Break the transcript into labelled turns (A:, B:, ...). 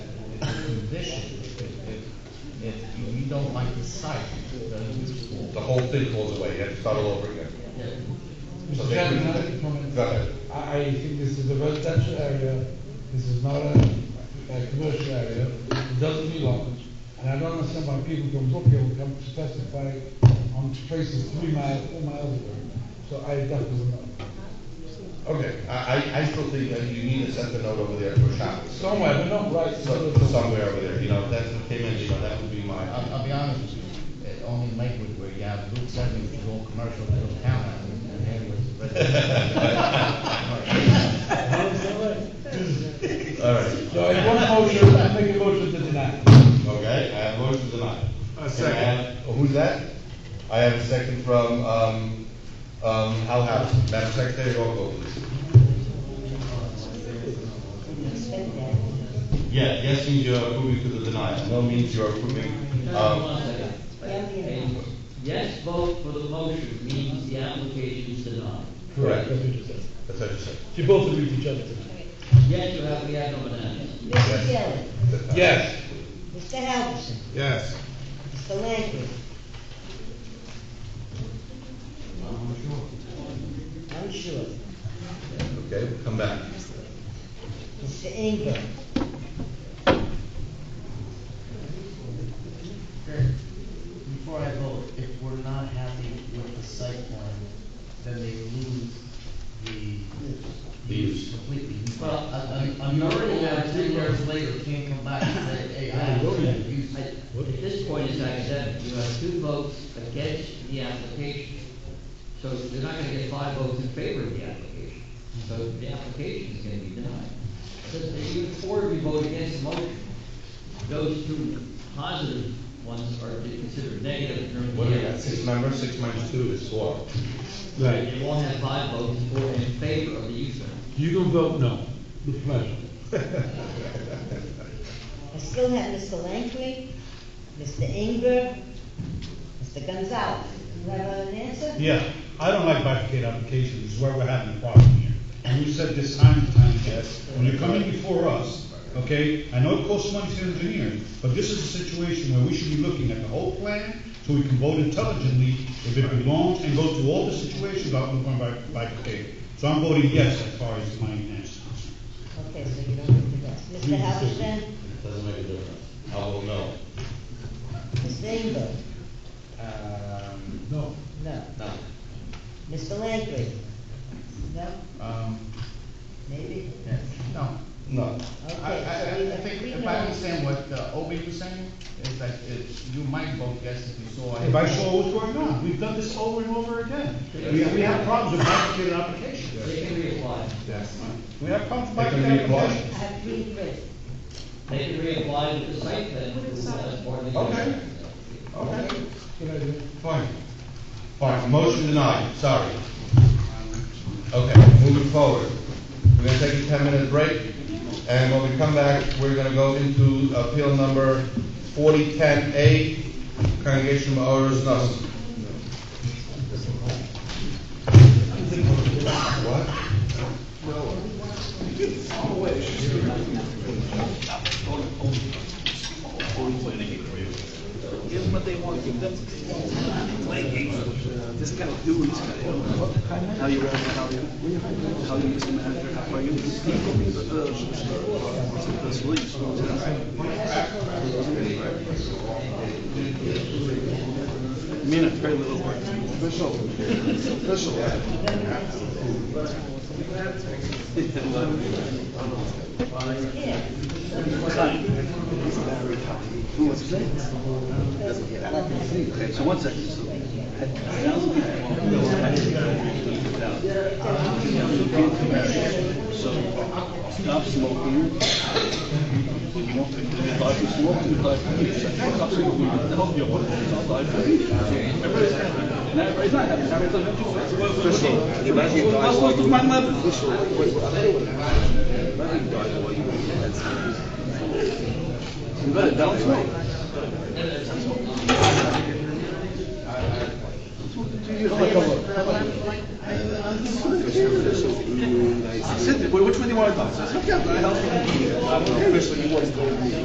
A: condition, if, if if you don't like the site, then you just-
B: The whole thing falls away, you have to start all over again. So
C: Mr.
B: they
C: Chairman,
B: couldn't-
C: another comment.
B: Go ahead.
C: I, I think this is a residential area, this is not a, a commercial area, it doesn't belong. And I don't understand why people come up here and come to testify on places three miles, four miles away. So I definitely not.
B: Okay, I, I, I still think that you need a separate note over there for Shabbos.
C: Somewhere, but not right.
B: So- Somewhere over there, you know, that's what came in, you know, that would be my,
A: I'll, I'll be honest with you, eh, only in Lakewood where you have Route seven, which is all commercial, little town, and, and there was residential.
B: all right,
C: So I want a motion, I make a motion to deny.
B: okay, I have a motion to
D: A
B: deny. Can I
D: second.
B: have- oh, Who's that? I have a second from, um, um, Hal Howard, Madam Secretary, roll call please. Yeah, yes means you're approving to the denial, no means you're approving, um,
E: Yes vote for the motion means the application is denied.
B: Correct.
C: That's what you said.
B: that's what you said.
C: You both agree with each other.
E: Yes, you have, we have no bananas.
F: Mrs. Dillon,
B: Um,
C: Yes.
F: Mr. Halverson,
D: Yes.
F: Mr. Langley. I'm sure.
B: Okay, we'll come back.
F: Mr. Ingram.
G: Before I vote, if we're not happy with the site plan, then they lose the use
B: Use.
G: completely.
E: Well,
G: I'm, I'm
E: you
G: already
E: already
G: now,
E: have
G: three
E: three
G: years
E: years.
G: later, can't come back and say, hey, I have the use.
E: I- At this point, it's academic, you have two votes against the application. So they're not gonna get five votes in favor of the application. So the application is gonna be denied. So if you, four of you vote against the motion, those two positive ones are considered negative in terms of.
B: What do we
E: the
B: got, six members, six minus two is four.
E: Right, you won't have five votes for in favor of the use variance.
C: You can vote no, with pleasure.
F: I still have Mr. Langley, Mr. Ingram, Mr. Gonzalez. Do I have an answer?
H: Yeah, I don't like bifurcated applications, is where we're having a problem here. And we said this time and time again, when you're coming before us, okay, I know it costs money to engineer, but this is a situation where we should be looking at the whole plan, so we can vote intelligently if it belongs, and go through all the situations without moving by bifurcated. So I'm voting yes as far as my answer is concerned.
F: Okay, so you don't have the rest. Mr. Halverson,
B: Doesn't make a difference. I will know.
F: Mr. Ingram.
D: Um,
C: No.
F: No.
D: no.
F: Mr. Langley. No?
D: Um,
F: Maybe?
D: yes. No.
B: No.
F: Okay,
D: I, I,
F: so we-
D: I think,
F: we
D: if I
F: know-
D: understand what uh, Obi was saying, is that it, you might vote yes if you saw. it.
H: If I saw what's going on, we've done this over and over again. We, we have problems with bifurcated applications.
E: They can reapply.
D: Yes.
H: We have problems with
B: They can
H: bifurcated
B: reapply.
H: applications.
F: I have three written.
E: They can reapply with the site plan approval as part of the.
B: Okay.
D: Okay.
C: Good idea.
B: Fine. Fine, motion denied, sorry. Okay, moving forward. We're gonna take a ten-minute break, and when we come back, we're gonna go into appeal number forty-ten A, Congregation of Orers Nuss. What?
I: this guy do, this guy don't. How you, running? how you, how you, Mr. Manager, how are you? Uh, That's Williams. Me and a very little work. Official, official.
F: Here.
I: Who was that? Okay, so one second. So, So, stop smoking. You won't think that you like smoking, you like, stop smoking, I hope you want to, stop like. Everybody's happy. Now, everybody's not happy, now everybody's happy. What's wrong with my mother? You better don't smoke. I said, which one do you want to talk? I said, yeah, the house.